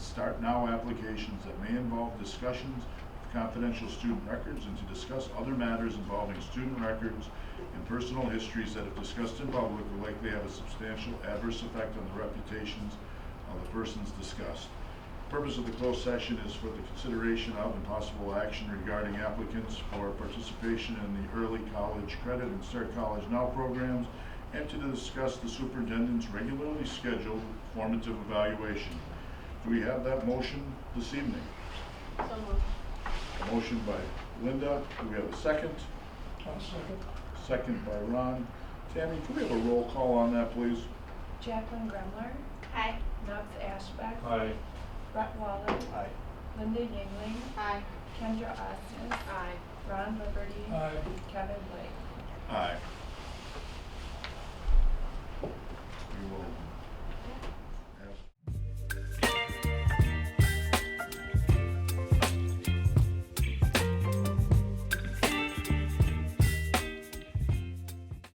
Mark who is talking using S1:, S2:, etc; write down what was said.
S1: Start Now applications that may involve discussions of confidential student records and to discuss other matters involving student records and personal histories that if discussed in public will likely have a substantial adverse effect on the reputations of the persons discussed. Purpose of the closed session is for the consideration of and possible action regarding applicants for participation in the early college credit and Start College Now programs and to discuss the superintendent's regularly scheduled formative evaluation. Do we have that motion this evening?
S2: So moved.
S1: A motion by Linda, do we have a second? Second by Ron. Tammy, can we have a roll call on that, please?
S3: Jacqueline Gremler,
S2: Aye.
S3: Nubs Ashbeck,
S4: Aye.
S3: Brett Waller,
S4: Aye.
S3: Linda Yingling,
S2: Aye.
S3: Kendra Austin,
S2: Aye.
S3: Ron Liberty,
S4: Aye.
S3: Kevin Blake.
S1: Aye. We will